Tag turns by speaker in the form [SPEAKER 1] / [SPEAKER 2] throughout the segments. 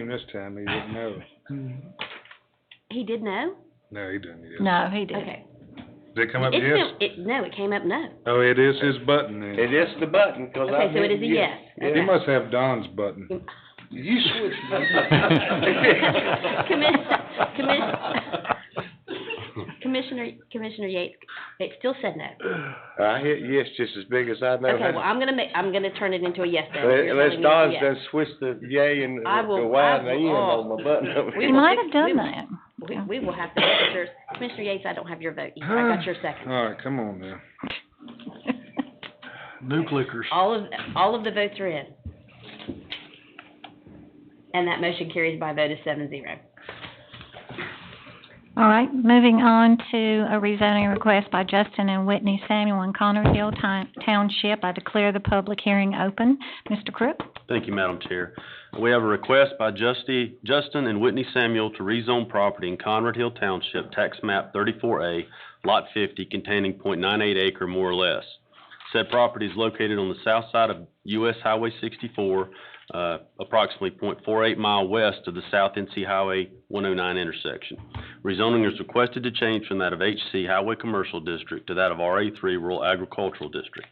[SPEAKER 1] him this time, he didn't know.
[SPEAKER 2] He did know?
[SPEAKER 1] No, he didn't yet.
[SPEAKER 3] No, he didn't.
[SPEAKER 2] Okay.
[SPEAKER 1] Did it come up
[SPEAKER 2] It's
[SPEAKER 1] Uh, yes?
[SPEAKER 2] still- It, no, it came up no.
[SPEAKER 1] Oh, it is his button then.
[SPEAKER 4] It is the button, cause I.
[SPEAKER 2] Okay, so it is a
[SPEAKER 4] didn't get-
[SPEAKER 2] yes.
[SPEAKER 1] He must have Don's button.
[SPEAKER 4] You switched.
[SPEAKER 2] Commis- Commissioner, Commissioner Yates, it still said no.
[SPEAKER 4] I hit yes just as big as I know
[SPEAKER 2] Okay, well,
[SPEAKER 4] how.
[SPEAKER 2] I'm gonna make, I'm gonna turn it into a yes then. if you're telling me it's
[SPEAKER 4] Unless
[SPEAKER 2] a
[SPEAKER 4] Don's
[SPEAKER 2] yes.
[SPEAKER 4] done switched the yay and
[SPEAKER 2] I
[SPEAKER 4] the
[SPEAKER 2] will-
[SPEAKER 4] Y
[SPEAKER 2] I
[SPEAKER 4] and the
[SPEAKER 2] will-
[SPEAKER 4] N on my button over
[SPEAKER 2] We
[SPEAKER 3] He
[SPEAKER 4] here.
[SPEAKER 2] will
[SPEAKER 3] might
[SPEAKER 2] fix-
[SPEAKER 3] have done
[SPEAKER 2] we will-
[SPEAKER 3] that.
[SPEAKER 2] We, we will have to fix yours. Commissioner Yates, I don't have your vote. either. I got your second.
[SPEAKER 1] All right, come on now.
[SPEAKER 5] New clickers.
[SPEAKER 2] All of, all of the votes are in. And that motion carries by a vote of seven zero.
[SPEAKER 3] All right, moving on to a rezoning request by Justin and Whitney Samuel in Connersville Ti- Township. I declare the public hearing open. Mr. Crook?
[SPEAKER 6] Thank you, Madam Chair. We have a request by Justy, Justin and Whitney Samuel to rezone property in Conrad Hill Township, tax map thirty-four A, lot fifty, containing 0.98 acre more or less. Said property is located on the south side of US Highway sixty-four, uh, approximately 0.48 mile west of the South NC Highway one oh nine intersection. Rezoning is requested to change from that of HC Highway Commercial District to that of RA three Rural Agricultural District.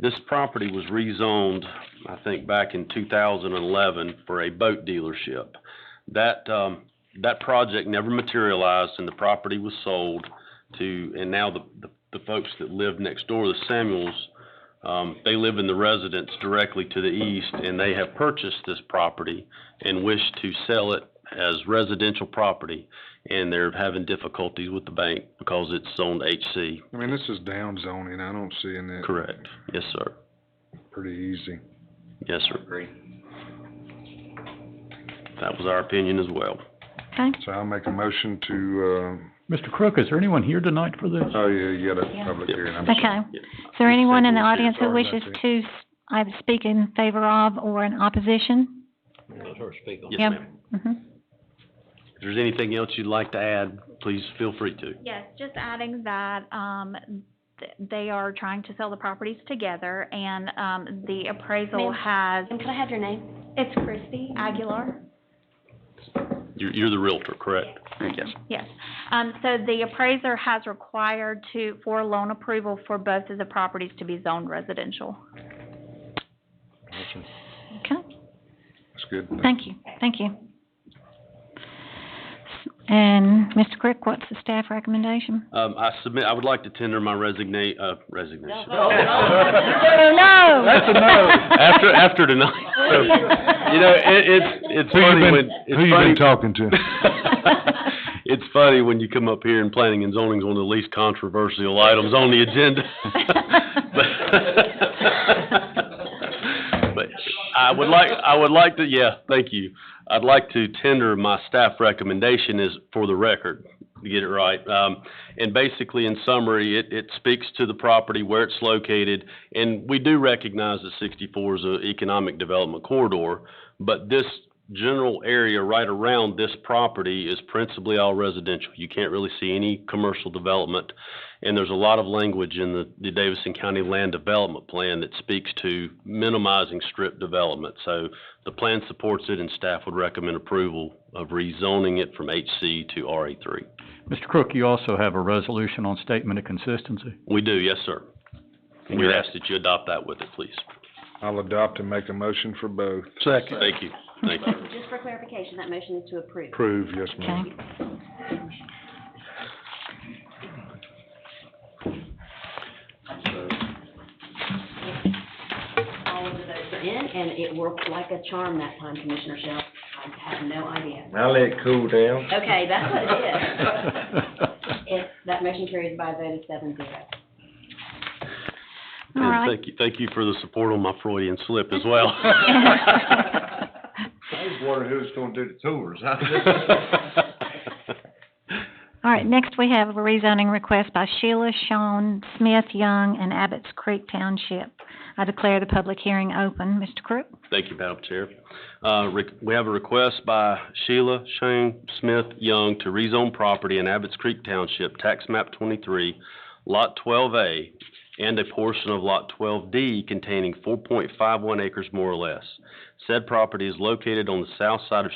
[SPEAKER 6] This property was rezoned, I think, back in two thousand and eleven for a boat dealership. That, um, that project never materialized and the property was sold to, and now the, the, the folks that live next door, the Samuels, um, they live in the residence directly to the east and they have purchased this property and wish to sell it as residential property. And they're having difficulties with the bank because it's zoned HC.
[SPEAKER 1] I mean, this is down zoning. I don't see in that
[SPEAKER 6] Correct. Yes, sir.
[SPEAKER 1] pretty easy.
[SPEAKER 6] Yes, sir. Agree. That was our opinion as well.
[SPEAKER 3] Okay.
[SPEAKER 1] So I'll make a motion to,
[SPEAKER 5] Mr. Crook, is there anyone here tonight for this?
[SPEAKER 1] uh, oh, yeah, you got a
[SPEAKER 3] Yeah.
[SPEAKER 1] public hearing. I'm sorry.
[SPEAKER 3] Okay. Is there anyone in the
[SPEAKER 1] Samuel,
[SPEAKER 3] audience who
[SPEAKER 1] sorry about
[SPEAKER 3] wishes
[SPEAKER 1] that.
[SPEAKER 3] to s- either speak in favor of or in opposition?
[SPEAKER 6] Yes, ma'am.
[SPEAKER 3] Mhm.
[SPEAKER 6] If there's anything else you'd like to add, please feel free to.
[SPEAKER 7] Yes, just adding that, um, th- they are trying to sell the properties together and, um, the appraisal
[SPEAKER 2] Ma'am.
[SPEAKER 7] has,
[SPEAKER 2] And could I have your name?
[SPEAKER 7] it's Christie Aguilar.
[SPEAKER 6] You're, you're the Realtor, correct? Yes.
[SPEAKER 7] Yes. Um, so the appraiser has required to, for loan approval for both of the properties to be zoned residential.
[SPEAKER 3] Okay.
[SPEAKER 1] That's good.
[SPEAKER 3] Thank you, thank you. And Mr. Crook, what's the staff recommendation?
[SPEAKER 6] Um, I submit, I would like to tender my resignate, uh, resignation.
[SPEAKER 3] Oh, no!
[SPEAKER 6] That's a no. After, after tonight. You know, it, it's, it's
[SPEAKER 1] Who you
[SPEAKER 6] funny
[SPEAKER 1] been,
[SPEAKER 6] when,
[SPEAKER 1] who
[SPEAKER 6] it's
[SPEAKER 1] you
[SPEAKER 6] funny.
[SPEAKER 1] been talking to?
[SPEAKER 6] It's funny when you come up here and planning and zoning's one of the least controversial items on the agenda. But- But I would like, I would like to, yeah, thank you. I'd like to tender my staff recommendation is for the record, to get it right. Um, and basically, in summary, it, it speaks to the property, where it's located, and we do recognize that sixty-four is an economic development corridor, but this general area right around this property is principally all residential. You can't really see any commercial development. And there's a lot of language in the, the Davidson County Land Development Plan that speaks to minimizing strip development. So the plan supports it and staff would recommend approval of rezoning it from HC to RA three.
[SPEAKER 5] Mr. Crook, you also have a resolution on statement of consistency.
[SPEAKER 6] We do, yes, sir. We'd ask that you adopt that with it, please.
[SPEAKER 1] I'll adopt and make a motion for both.
[SPEAKER 5] Second.
[SPEAKER 6] Thank you, thank you.
[SPEAKER 2] Just for clarification, that motion is to approve.
[SPEAKER 1] Approve, yes, ma'am.
[SPEAKER 3] Okay.
[SPEAKER 2] All of the votes are in, and it worked like a charm that time, Commissioner Shell. I have no idea.
[SPEAKER 4] I let it cool down.
[SPEAKER 2] Okay, that's what it is. It, that motion carries by a vote of seven zero.
[SPEAKER 3] All
[SPEAKER 6] And
[SPEAKER 3] right.
[SPEAKER 6] Thank you, thank you for the support on my Freudian slip as well.
[SPEAKER 4] I was wondering who's gonna do the tours,
[SPEAKER 3] All right, next we have a rezoning request by Sheila Shawn Smith Young in Abbott's Creek Township. I declare the public hearing open. Mr. Crook?
[SPEAKER 6] Thank you, Madam Chair. Uh, re- we have a request by Sheila Shane Smith Young to rezone property in Abbott's Creek Township, tax map twenty-three, lot twelve A, and a portion of lot twelve D containing four point five one acres more or less. Said property is located on the south side of